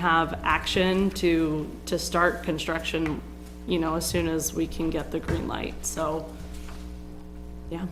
have action to, to start construction, you know, as soon as we can get the green light, so, yeah,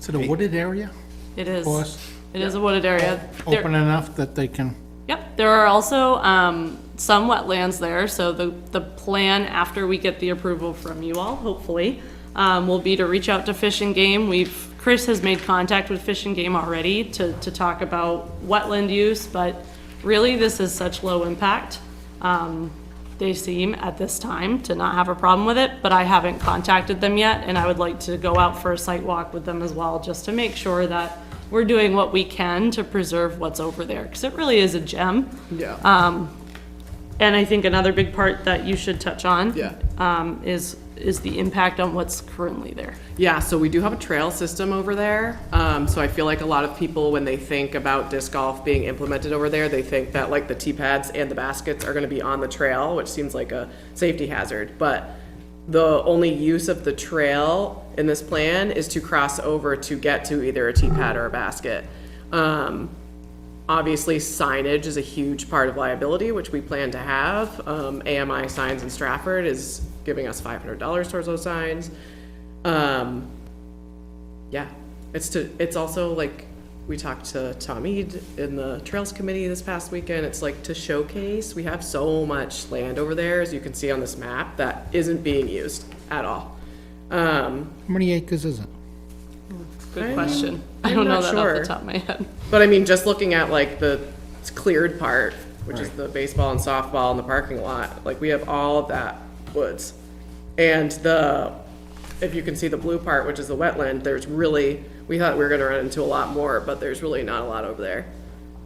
Is it a wooded area? it is. Forest? Oh, It is a wooded area. There- Open enough that they can, Yep, there are also um, some wetlands there, so the, the plan after we get the approval from you all, hopefully, um, will be to reach out to Fish and Game. We've, Chris has made contact with Fish and Game already to, to talk about wetland use, but really, this is such low impact. Um, They seem at this time to not have a problem with it, but I haven't contacted them yet, and I would like to go out for a site walk with them as well, just to make sure that we're doing what we can to preserve what's over there, because it really is a gem. Yeah. And I think another big part that you should touch on. Yeah. Um, is, is the impact on what's currently there. yeah, so we do have a trail system over there. Um, so I feel like a lot of people, when they think about disc golf being implemented over there, they think that like the tee pads and the baskets are going to be on the trail, which seems like a safety hazard. But the only use of the trail in this plan is to cross over to get to either a tee pad or a basket. Um, Obviously, signage is a huge part of liability, which we plan to have. Um, AMI Signs in Stratford is giving us five hundred dollars towards those signs. Um, yeah, it's to, it's also like, we talked to Tom Ead in the Trails Committee this past weekend. It's like to showcase, we have so much land over there, as you can see on this map, that isn't being used at all. Um, how many acres is it? Good I'm- question. I I'm don't know not that off sure. the top of my head. But I mean, just looking at like the cleared part, which is the baseball and softball and the parking lot, like we have all of that woods. And the, if you can see the blue part, which is the wetland, there's really, we thought we were gonna run into a lot more, but there's really not a lot over there.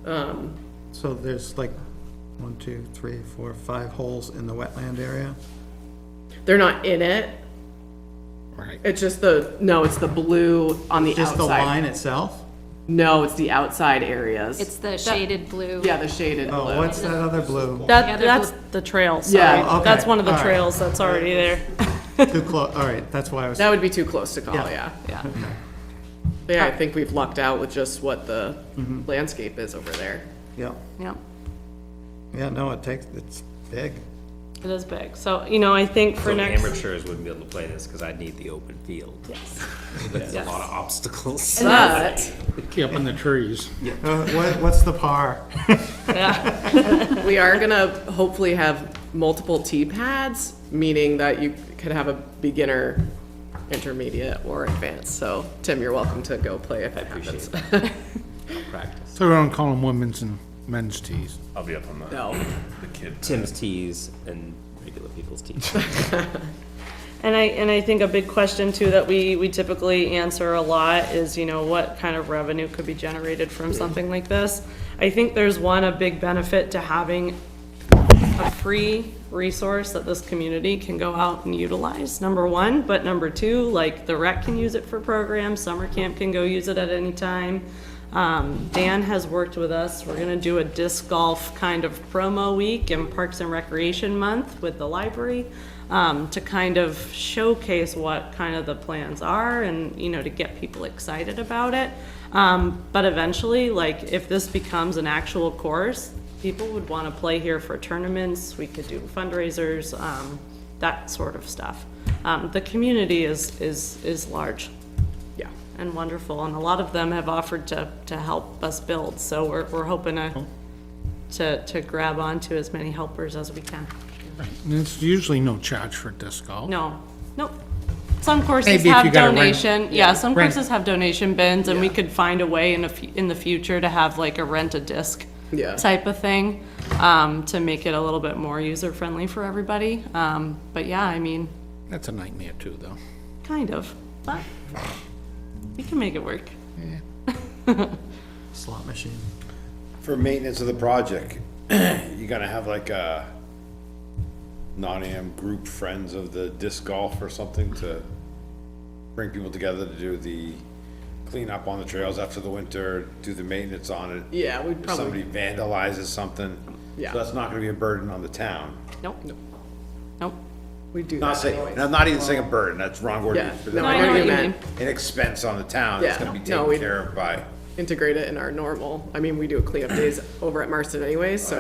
Um, So there's like one, two, three, four, five holes in the wetland area? they're not in it, Right. it's just the, no, it's the blue on the Just the outside. line itself? No, it's the outside areas. It's the shaded blue. Yeah, the shaded Oh, blue. what's Oh, that other blue? Yeah, That, they're that's both- the trail, Yeah, sorry. okay, That's one of the all right. trails that's already there. Too close, all right, that's why I was, That would be too close to call, Yeah. yeah. Yeah. Yeah, I think we've lucked out with just what the landscape is over there. yeah, Yeah. yeah, no, it takes, it's big. It is big. So, you know, I think for So next. amateurs wouldn't be able to play this because I'd need the open field. Yes. There's a lot of obstacles. But Up in the trees. Uh, What, what's the par? we are gonna hopefully have multiple tee pads, meaning that you could have a beginner, intermediate, or advanced. So, Tim, you're welcome to go play if it happens. Practice. So we don't call them women's and men's tees. I'll be up on the, No, the kid. Tim's tees and regular people's tees. And I, and I think a big question too that we, we typically answer a lot is, you know, what kind of revenue could be generated from something like this? I think there's one, a big benefit to having a free resource that this community can go out and utilize, number one. But number two, like, the rec can use it for programs, summer camp can go use it at any time. Um, Dan has worked with us, we're gonna do a disc golf kind of promo week and Parks and Recreation Month with the library, um, to kind of showcase what kind of the plans are and, you know, to get people excited about it. Um, but eventually, like, if this becomes an actual course, people would want to play here for tournaments, we could do fundraisers, um, that sort of stuff. Um, the community is, is, is large yeah. and wonderful, and a lot of them have offered to, to help us build, so we're, we're hoping to, to, to grab onto as many helpers as we can. And it's usually no charge for disc golf. No, nope. Some courses Maybe if you have gotta rent- donation, yeah, some Rent. courses have donation bins, and we could find a way in a, fu- in the future to have like a rent-a-disc Yeah. type of thing, um, to make it a little bit more user-friendly for everybody. Um, but yeah, I mean, That's a nightmare too, though. kind of, but we can make it work. Slot machine. For maintenance of the project, you gonna have like a non-am group friends of the disc golf or something to bring people together to do the cleanup on the trails after the winter, do the maintenance on it? Yeah, we'd If probably- somebody vandalizes something, Yeah. so that's not gonna be a burden on the town. Nope, nope. We do Not that saying, anyways. I'm not even saying a burden, that's wrong word. Yeah, for no, that. I No, I know know what you what you meant. An expense on the town, that's Yeah. gonna be No, we- taken care of by integrate it in our normal. I mean, we do cleanup days over at Marston anyways, so